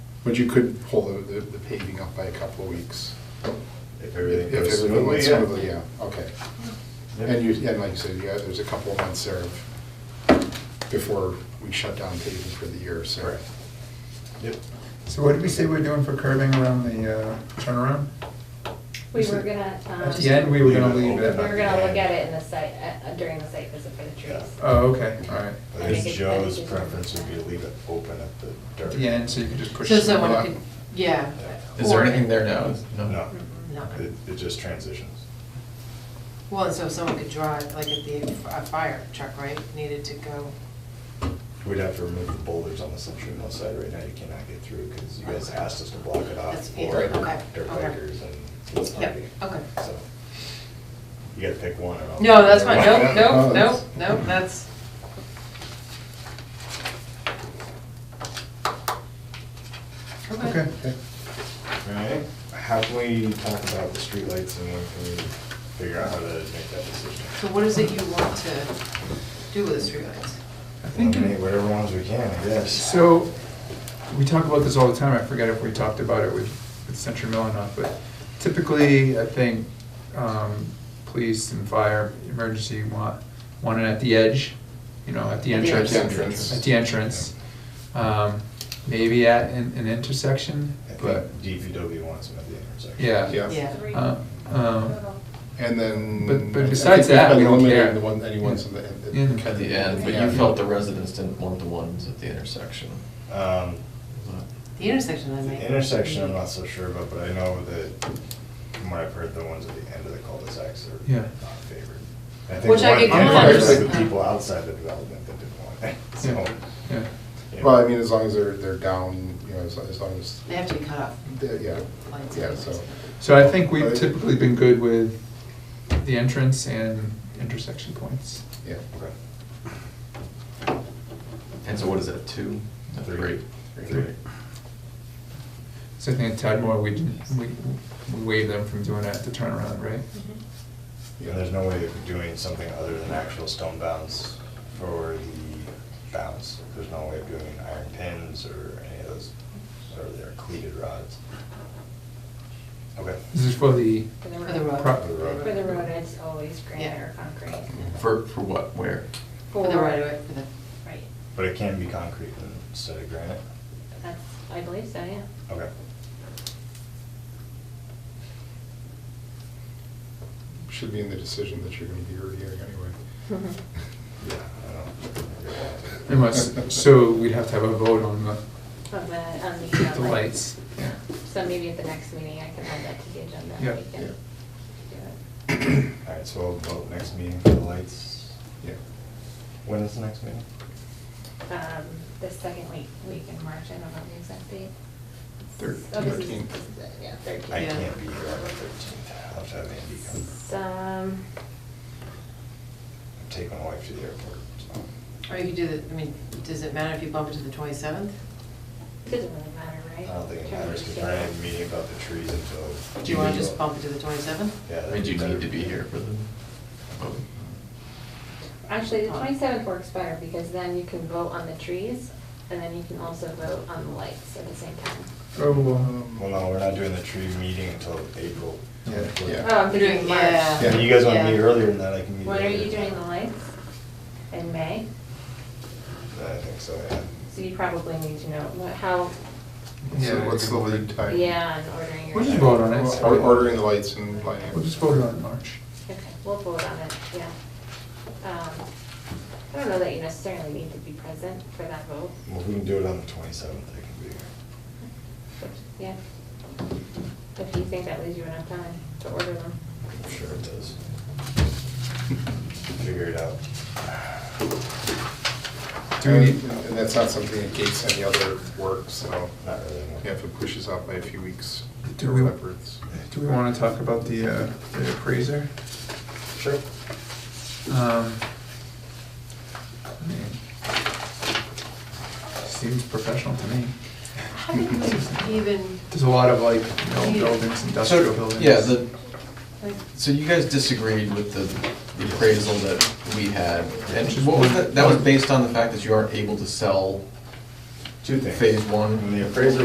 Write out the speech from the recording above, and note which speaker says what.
Speaker 1: But you could pull the- the the paving up by a couple of weeks.
Speaker 2: If everything
Speaker 1: If
Speaker 2: goes
Speaker 1: everything
Speaker 2: smoothly,
Speaker 1: went
Speaker 2: yeah.
Speaker 1: smoothly, yeah, okay. And you, and like you said, yeah, there's a couple of months there of- before we shut down paving for the year, so.
Speaker 2: Correct. Yep.
Speaker 3: So what did we say we're doing for curving around the uh, turnaround?
Speaker 4: We were gonna, um,
Speaker 3: At the end, we were gonna
Speaker 2: Leave it
Speaker 3: leave it.
Speaker 4: we were gonna look at it in the site, uh, during the site visit for the trees.
Speaker 3: Oh, okay, all right.
Speaker 2: I
Speaker 4: I think
Speaker 2: guess
Speaker 4: it's-
Speaker 2: Joe's preference would be to leave it open at the dirt.
Speaker 3: At the end, so you could just push.
Speaker 5: So
Speaker 3: the roll
Speaker 5: someone
Speaker 3: up.
Speaker 5: could, yeah.
Speaker 6: Is there
Speaker 5: or-
Speaker 6: anything there now?
Speaker 2: No,
Speaker 5: No.
Speaker 2: it, it just transitions.
Speaker 5: Well, and so someone could drive, like if the, a fire truck, right, needed to go.
Speaker 2: We'd have to remove the boulders on the Century Mill side right now, you cannot get through, because you guys asked us to block it off
Speaker 5: That's- yeah,
Speaker 2: for
Speaker 5: okay,
Speaker 2: dirt
Speaker 5: okay.
Speaker 2: bikers and it's
Speaker 5: Yep,
Speaker 2: party.
Speaker 5: okay.
Speaker 2: So, you gotta pick one or. I'll-
Speaker 5: No, that's fine,
Speaker 1: No,
Speaker 5: nope, nope,
Speaker 1: that's-
Speaker 5: nope, nope, that's,
Speaker 3: Okay.
Speaker 2: Alright, how can we talk about the streetlights and when can we figure out how to make that decision?
Speaker 5: so what is it you want to do with the streetlights?
Speaker 3: I think,
Speaker 2: Eliminate whatever ones we can, I guess.
Speaker 3: so, we talk about this all the time, I forget if we talked about it with, with Century Mill or not, but typically, I think, um, police and fire, emergency want, want it at the edge, you know, at the
Speaker 5: At the
Speaker 3: entrance.
Speaker 1: entrance.
Speaker 3: At the entrance. Um, maybe at an, an intersection,
Speaker 2: I think
Speaker 3: but,
Speaker 2: DPW wants them at the intersection.
Speaker 3: yeah.
Speaker 1: Yeah.
Speaker 5: Yeah.
Speaker 3: Uh, um,
Speaker 1: And then.
Speaker 3: But- but
Speaker 1: I think we've
Speaker 3: besides that,
Speaker 1: been
Speaker 3: we don't
Speaker 1: eliminating
Speaker 3: care.
Speaker 1: The one, any ones in the. in
Speaker 3: Yeah.
Speaker 6: At the end, but you felt the residents didn't want the ones at the intersection.
Speaker 2: Um,
Speaker 5: The intersection, I mean.
Speaker 2: the intersection, I'm not so sure about, but I know that, from what I've heard, the ones at the end of the cul-de-sacs are
Speaker 3: Yeah.
Speaker 2: not favored. think
Speaker 5: Which I
Speaker 2: one-
Speaker 5: could
Speaker 2: one of the
Speaker 3: comprehend.
Speaker 2: issues with people outside the development that didn't want it, so.
Speaker 3: yeah.
Speaker 2: yeah.
Speaker 1: Well, I mean, as long as they're, they're down, you know, as as long as,
Speaker 5: They have to be cut off.
Speaker 1: they're- yeah,
Speaker 5: Lights
Speaker 1: yeah,
Speaker 5: and
Speaker 1: so.
Speaker 5: lights.
Speaker 3: So I think we've
Speaker 1: Right.
Speaker 3: typically been good with the entrance and intersection points.
Speaker 1: Yeah,
Speaker 2: Okay.
Speaker 6: And so what is that, two?
Speaker 2: Three.
Speaker 6: Three.
Speaker 3: So I think at Tadmore, we, didn't- we we waived them from doing that, the turnaround, right?
Speaker 2: Yeah, there's no way of doing something other than actual stone bounce for the bounce. There's no way of doing iron pins or any of those, or their cleated rods. Okay.
Speaker 3: This is for the,
Speaker 4: For the
Speaker 5: For the road.
Speaker 3: Pro-
Speaker 2: For the road.
Speaker 4: For the road, it's always granite
Speaker 5: Yeah.
Speaker 4: or concrete.
Speaker 6: For, for what, where?
Speaker 5: For the right of way, for the,
Speaker 4: Right,
Speaker 2: But it can be concrete instead of granite?
Speaker 4: that's, I believe so, yeah.
Speaker 2: Okay.
Speaker 1: should be in the decision that you're gonna be reviewing anyway.
Speaker 2: Yeah, I don't.
Speaker 3: unless, so we'd have to have a vote on the,
Speaker 4: On the, on the. uh,
Speaker 3: the lights. Yeah.
Speaker 4: So maybe at the next meeting, I can add that to the agenda.
Speaker 3: Yeah.
Speaker 4: We can
Speaker 1: Yeah.
Speaker 4: do it.
Speaker 2: All right, so we'll vote next meeting for the lights.
Speaker 1: Yeah.
Speaker 2: When is the next meeting?
Speaker 4: Um, the second week, week in March, I don't know the exact date.
Speaker 1: Thir-
Speaker 4: Oh, this is-
Speaker 1: 13th.
Speaker 4: this is it,
Speaker 2: I
Speaker 4: Yeah,
Speaker 5: Yeah.
Speaker 4: thirteenth.
Speaker 2: can't be here on the thirteenth. I'll have to have Andy come.
Speaker 4: Um,
Speaker 2: I'm taking my wife to the airport, so.
Speaker 5: or you could do the, I mean, does it matter if you bump it to the twenty-seventh?
Speaker 4: doesn't really matter,
Speaker 2: I
Speaker 4: right?
Speaker 2: don't think it matters, because we're not even meeting about the trees until.
Speaker 5: Do you wanna just bump it to the twenty-seventh?
Speaker 2: Yeah.
Speaker 6: Did you
Speaker 2: that'd
Speaker 6: need to be here for the? vote?
Speaker 4: Actually, the twenty-seventh works better because then you can vote on the trees and then you can also vote on the lights at the same time.
Speaker 3: Oh, um,
Speaker 2: Well, no, we're not doing the tree meeting until April.
Speaker 1: Yeah, yeah.
Speaker 4: Oh, I'm
Speaker 5: We're
Speaker 4: thinking
Speaker 5: doing-
Speaker 4: March.
Speaker 5: yeah.
Speaker 2: Yeah, you guys want to meet
Speaker 5: Yeah.
Speaker 2: earlier than that, I can meet.
Speaker 4: When are you
Speaker 2: earlier.
Speaker 4: doing the lights? In May?
Speaker 2: I think so, yeah.
Speaker 4: So you probably need to know what, how,
Speaker 1: So what's the lead time?
Speaker 4: yeah, and ordering your.
Speaker 3: We'll just vote on it.
Speaker 1: Or- Ordering the lights and lighting.
Speaker 3: We'll just vote on it in March.
Speaker 4: Okay, we'll vote on it, yeah. Um, I don't know that you necessarily need to be present for that vote.
Speaker 2: Well, if we can do it on the twenty-seventh, I can be here.
Speaker 4: Yeah. If you think that leaves you enough time to order them.
Speaker 2: I'm sure it does. Figure it out.
Speaker 3: Do we
Speaker 1: And-
Speaker 3: need-
Speaker 1: And that's not something that gates any other work, so
Speaker 2: Not really. no.
Speaker 1: yeah, if it pushes out by a few weeks,
Speaker 3: Do we-
Speaker 1: whatever, it's-
Speaker 3: Do we want to talk about the uh, the appraiser?
Speaker 2: Sure.
Speaker 3: Um, I mean, Seems professional to me.
Speaker 5: How did we even,
Speaker 3: There's a lot of like, you know, buildings, industrial buildings.
Speaker 6: Yeah, the,
Speaker 5: like,
Speaker 6: so you guys disagreed with the the appraisal that we had. And what was that, that was based on the fact that you aren't able to sell
Speaker 2: Two things.
Speaker 6: phase one?
Speaker 2: When the appraiser